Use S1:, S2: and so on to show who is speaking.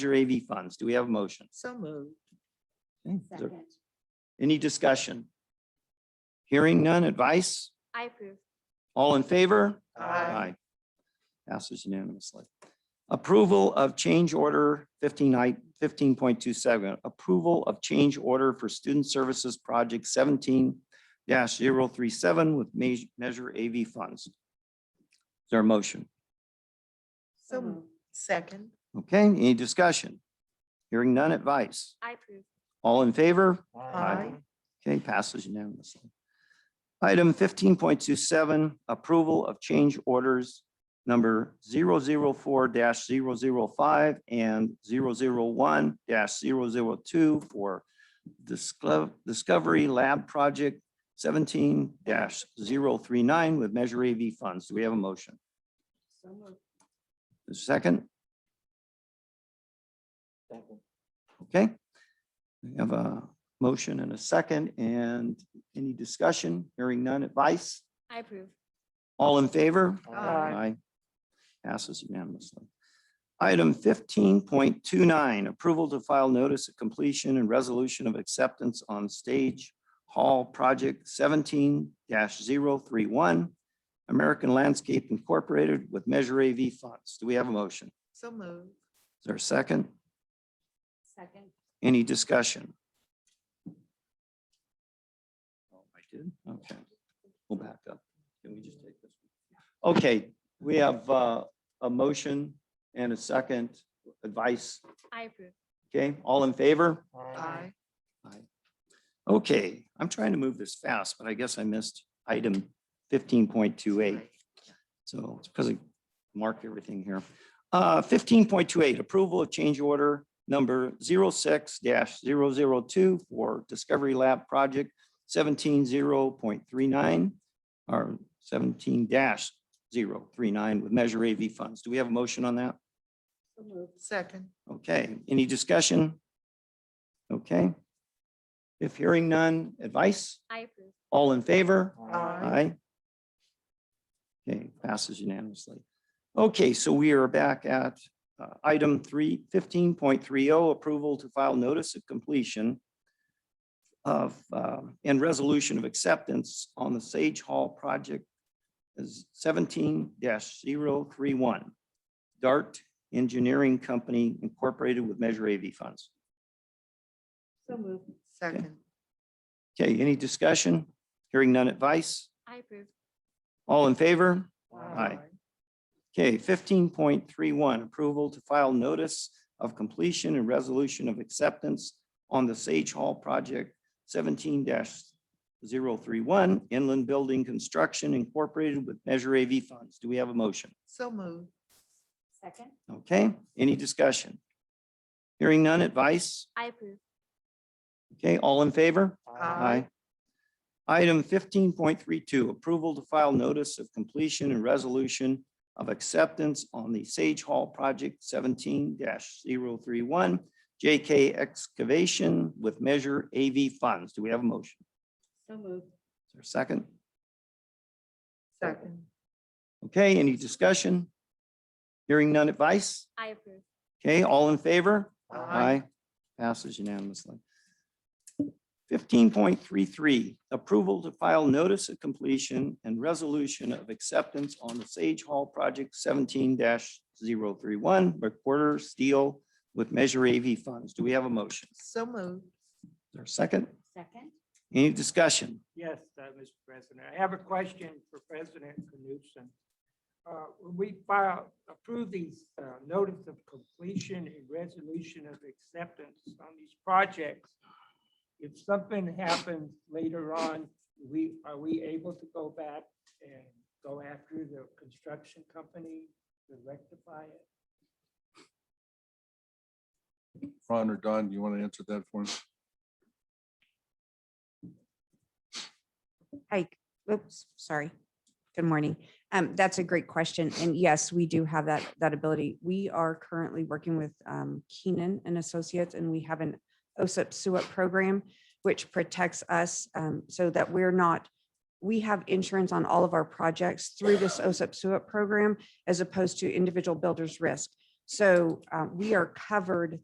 S1: major AV funds. Do we have a motion?
S2: So moved.
S1: Okay, is there
S3: Second.
S1: Any discussion? Hearing none advice?
S3: I approve.
S1: All in favor?
S2: Aye.
S1: Passes unanimously. Approval of change order fifteen I, fifteen point two seven, approval of change order for student services project seventeen 37 with me- measure AV funds. Is there a motion?
S2: So moved. Second.
S1: Okay, any discussion? Hearing none advice?
S3: I approve.
S1: All in favor?
S2: Aye.
S1: Okay, passes unanimously. Item fifteen point two seven, approval of change orders number 4 5 and 1 2 for Disclo- Discovery Lab Project seventeen 39 with Measure AV funds. Do we have a motion? A Second? Okay. We have a motion and a second and any discussion? Hearing none advice?
S3: I approve.
S1: All in favor?
S2: Aye.
S1: Passes unanimously. Item fifteen point two nine, approval to file notice of completion and resolution of acceptance on stage hall project seventeen 31 American Landscape Incorporated with Measure AV funds. Do we have a motion? Is
S2: So moved.
S1: there a second?
S3: Second.
S1: Any discussion? Oh, I did, okay. We'll back up. Can we just take this? one? Okay, we have uh, a motion and a second advice.
S3: I approve.
S1: Okay, all in favor?
S2: Aye.
S1: Okay, I'm trying to move this fast, but I guess I missed item fifteen point two eight. So it's because I marked everything here. Uh, fifteen point two eight, approval of change order number 6 2 for Discovery Lab Project seventeen zero point three nine or seventeen 39 with Measure AV funds. Do we have a motion on that?
S2: Second.
S1: Okay, any discussion? Okay. If hearing none, advice?
S3: I approve.
S1: All in favor?
S2: Aye.
S1: Aye. Okay, passes unanimously. Okay, so we are back at uh, item three fifteen point three oh, approval to file notice of completion of, um, and resolution of acceptance on the Sage Hall project is seventeen 31 Dart Engineering Company Incorporated with Measure AV Funds.
S2: So moved. Second.
S1: Okay, any discussion? Hearing none advice?
S3: I approve.
S1: All in favor? Aye. Okay, fifteen point three one, approval to file notice of completion and resolution of acceptance on the Sage Hall project seventeen 31 inland building construction incorporated with Measure AV funds. Do we have a motion?
S2: So moved.
S3: Second.
S1: Okay, any discussion? Hearing none advice?
S3: I approve.
S1: Okay, all in favor?
S2: Aye.
S1: Item fifteen point three two, approval to file notice of completion and resolution of acceptance on the Sage Hall Project seventeen 31 JK excavation with Measure AV funds. Do we have a motion?
S3: So moved.
S1: Is there a second?
S2: Second.
S1: Okay, any discussion? Hearing none advice?
S3: I approve.
S1: Okay, all in favor?
S2: Aye.
S1: Passes unanimously. Fifteen point three three, approval to file notice of completion and resolution of acceptance on the Sage Hall Project seventeen 31 recorder steel with Measure AV funds. Do we have a motion?
S2: So moved.
S1: Is there a second?
S3: Second.
S1: Any discussion?
S4: Yes, uh, Mr. President. I have a question for President Knutson. Uh, When we file, approve these uh, notice of completion and resolution of acceptance on these projects, if something happens later on, we, are we able to go back and go after the construction company to rectify it?
S5: Ron or Don, you want to answer that for us?
S6: Hi, oops, sorry. Good morning. Um, that's a great question. And yes, we do have that, that ability. We are currently working with, um, Keenan and Associates and we have an OSIP SUIP program, which protects us, um, so that we're not, we have insurance on all of our projects through this OSIP SUIP program as opposed to individual builders risk. So uh, we are covered